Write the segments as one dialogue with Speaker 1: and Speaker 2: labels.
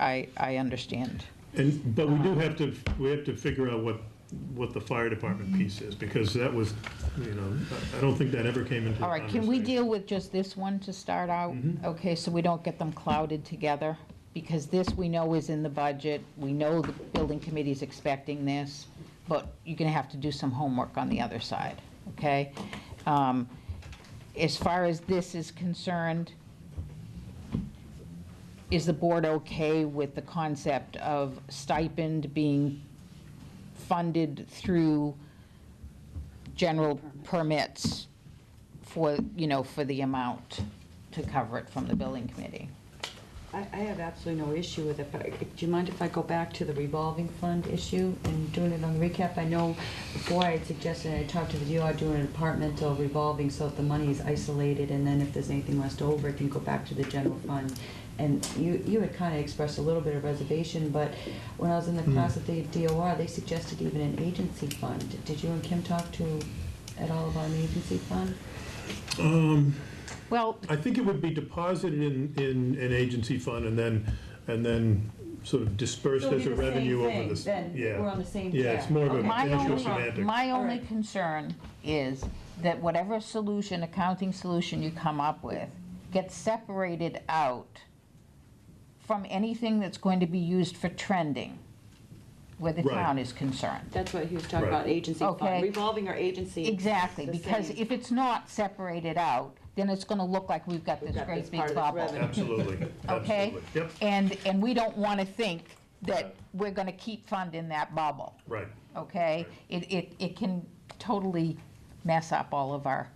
Speaker 1: I, I understand.
Speaker 2: And, but we do have to, we have to figure out what, what the fire department piece is, because that was, you know, I I don't think that ever came into.
Speaker 1: All right, can we deal with just this one to start out? Okay, so we don't get them clouded together? Because this, we know is in the budget, we know the building committee's expecting this, but you're gonna have to do some homework on the other side, okay? Um, As far as this is concerned, is the board okay with the concept of stipend being funded through general permits for, you know, for the amount to cover it from the building committee.
Speaker 3: I, I have absolutely no issue with it, but I- do you mind if I go back to the revolving fund issue and doing it on the recap? I know before I had suggested, I talked to the DOR doing an departmental revolving, so if the money is isolated, and then if there's anything left over, it can go back to the general fund. And you, you had kind of expressed a little bit of reservation, but when I was in the class at the DOR, they suggested even an agency fund. Did you and Kim talk to, at all about an agency fund?
Speaker 1: Well,
Speaker 2: I think it would be deposited in, in an agency fund and then, and then sort of dispersed
Speaker 3: So it'd
Speaker 2: as
Speaker 3: be
Speaker 2: a
Speaker 3: the same
Speaker 2: revenue over
Speaker 3: thing,
Speaker 2: this.
Speaker 3: then.
Speaker 2: yeah.
Speaker 3: We're on the same
Speaker 2: Yeah, it's
Speaker 3: track.
Speaker 2: more of a
Speaker 3: Okay.
Speaker 1: my
Speaker 2: issue of
Speaker 1: only,
Speaker 2: semantics.
Speaker 1: my
Speaker 3: All
Speaker 1: only
Speaker 3: right.
Speaker 1: concern is that whatever solution, accounting solution you come up with, gets separated out from anything that's going to be used for trending where the
Speaker 2: Right.
Speaker 1: town is concerned.
Speaker 3: That's what he was
Speaker 2: Right.
Speaker 3: talking about, agency
Speaker 1: Okay.
Speaker 3: fund, revolving or agency. is
Speaker 1: Exactly,
Speaker 3: the
Speaker 1: because
Speaker 3: same.
Speaker 1: if it's not separated out, then it's gonna look like we've got
Speaker 3: We've
Speaker 1: this
Speaker 3: got
Speaker 1: great
Speaker 3: this part
Speaker 1: big
Speaker 3: of this
Speaker 1: bubble.
Speaker 3: revenue.
Speaker 2: Absolutely,
Speaker 1: okay?
Speaker 2: absolutely. Yep,
Speaker 1: And, and we don't want to think
Speaker 2: Right.
Speaker 1: that we're going to keep funding that bubble,
Speaker 2: right.
Speaker 1: okay? It, it, it can totally mess up all of our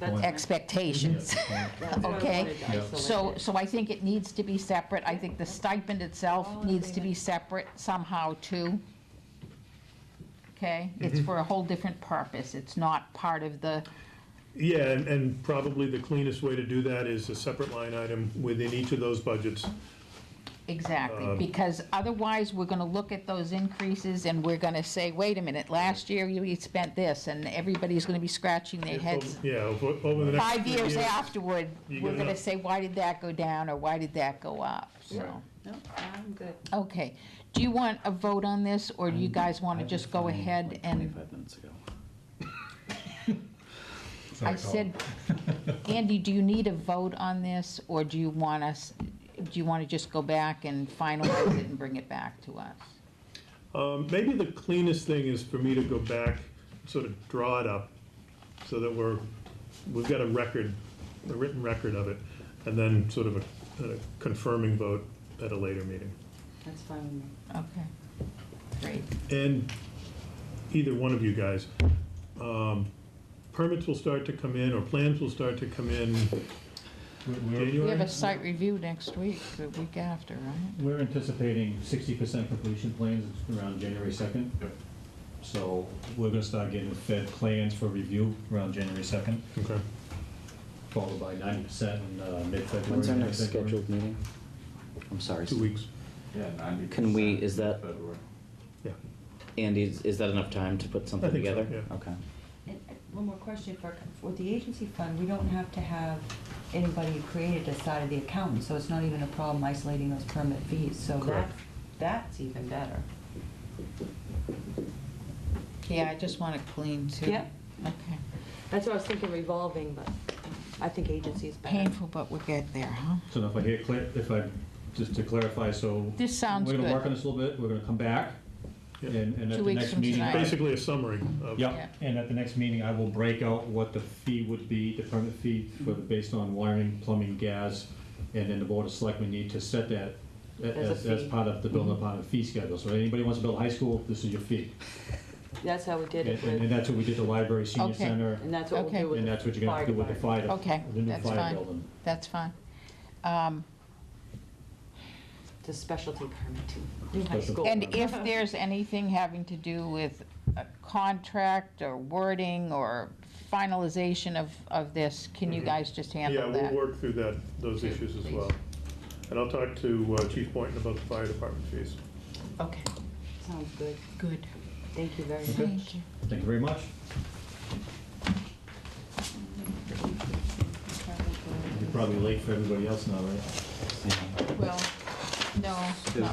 Speaker 3: That's-
Speaker 1: expectations.
Speaker 3: that's what I
Speaker 1: Oh, okay.
Speaker 3: wanted to isolate
Speaker 1: So,
Speaker 3: it.
Speaker 1: so I think it needs to be separate. I think the stipend
Speaker 3: Oh,
Speaker 1: itself needs to be separate somehow too. Okay?
Speaker 2: Mm-hmm.
Speaker 1: It's for a whole different purpose. It's not part of the,
Speaker 2: Yeah, and, and probably the cleanest way to do that is a separate line item within each of those budgets. Um,
Speaker 1: Exactly, because otherwise, we're gonna look at those increases and we're gonna say, wait a minute, last year you we spent this, and everybody's gonna be scratching their heads.
Speaker 2: Yeah, over over the next.
Speaker 1: Five
Speaker 2: few
Speaker 1: years afterward,
Speaker 2: You're
Speaker 1: we're
Speaker 2: gonna-
Speaker 1: gonna say, why did that go down, or why did that go up, so.
Speaker 3: No, I'm good.
Speaker 1: Okay, do you want a vote on this, or do you guys wanna just go ahead and,
Speaker 4: Twenty-five minutes ago.
Speaker 1: I said, Andy, do you need a vote on this, or do you want us, do you wanna just go back and finalize it and bring it back to us?
Speaker 2: Um, Maybe the cleanest thing is for me to go back, sort of draw it up, so that we're, we've got a record, a written record of it, and then sort of a a confirming vote at a later meeting.
Speaker 3: That's fine with me.
Speaker 1: Okay, great.
Speaker 2: And either one of you guys, um, permits will start to come in, or plans will start to come in
Speaker 1: We have
Speaker 2: January?
Speaker 1: a site review next week, the week after, right?
Speaker 4: We're anticipating sixty percent completion plans around January second. So we're gonna start getting fed plans for review around January second,
Speaker 2: Okay.
Speaker 4: followed by ninety percent in uh, mid-February.
Speaker 5: When's our
Speaker 4: end of
Speaker 5: next
Speaker 4: February.
Speaker 5: scheduled meeting? I'm sorry.
Speaker 2: Two weeks,
Speaker 6: Yeah, ninety
Speaker 5: Can we- is that-
Speaker 6: February.
Speaker 2: yeah.
Speaker 5: Andy, is is that enough time to put something
Speaker 2: think so,
Speaker 5: together?
Speaker 2: yeah.
Speaker 5: Okay.
Speaker 3: And uh, one more question for, for the agency fund, we don't have to have anybody created as side of the accountant, so it's not even a problem isolating those permit fees, so that,
Speaker 2: Correct.
Speaker 3: that's even better.
Speaker 1: Yeah, I just want it clean too.
Speaker 3: Yeah.
Speaker 1: Okay.
Speaker 3: That's what I was thinking revolving, but I think agency is better.
Speaker 1: Painful, but we'll get there, huh?
Speaker 4: So if I hear, clear- if I, just to clarify, so.
Speaker 1: This sounds
Speaker 4: We're gonna
Speaker 1: good.
Speaker 4: work on this a little bit, we're gonna come back,
Speaker 2: Yeah.
Speaker 4: and, and
Speaker 1: Two
Speaker 4: at the
Speaker 1: weeks
Speaker 4: next
Speaker 1: from
Speaker 4: meeting.
Speaker 1: tonight.
Speaker 2: Basically a summary of.
Speaker 4: Yeah, and at the next meeting, I will break out what the fee would be, the permit fee for the, based on wiring, plumbing, gas, and then the board of selectmen need to set that
Speaker 3: As
Speaker 4: a-
Speaker 3: a
Speaker 4: as, as
Speaker 3: fee. Mm-hmm.
Speaker 4: part of the building department fee schedule. So anybody wants to build a high school, this is your fee.
Speaker 3: That's how we did
Speaker 4: And,
Speaker 3: it
Speaker 4: and and
Speaker 3: with,
Speaker 4: that's what we did the library, senior
Speaker 1: Okay.
Speaker 4: center,
Speaker 3: and that's what we'll do with
Speaker 4: and
Speaker 3: the
Speaker 4: that's what you're gonna have to do with the
Speaker 3: fire
Speaker 4: fire,
Speaker 1: Okay,
Speaker 4: the new
Speaker 1: that's
Speaker 4: fire
Speaker 1: fine.
Speaker 4: building.
Speaker 1: That's fine. Um,
Speaker 3: department, the specialty permit too, new high
Speaker 4: Special-
Speaker 3: school.
Speaker 1: And if there's anything having to do with a contract or wording or finalization of, of this, can
Speaker 4: Mm-hmm.
Speaker 1: you
Speaker 2: Mhm.
Speaker 1: guys just
Speaker 2: Yeah,
Speaker 1: handle
Speaker 2: we'll
Speaker 1: that?
Speaker 2: work through that, those issues as well. And I'll talk to uh, Chief Boynton about the fire department fees.
Speaker 1: Okay,
Speaker 3: Sounds good,
Speaker 1: good.
Speaker 3: thank you very much.
Speaker 1: Thank you.
Speaker 4: Thank you very much. You're probably late for everybody else now, right?
Speaker 5: Yeah.
Speaker 1: Well, no, not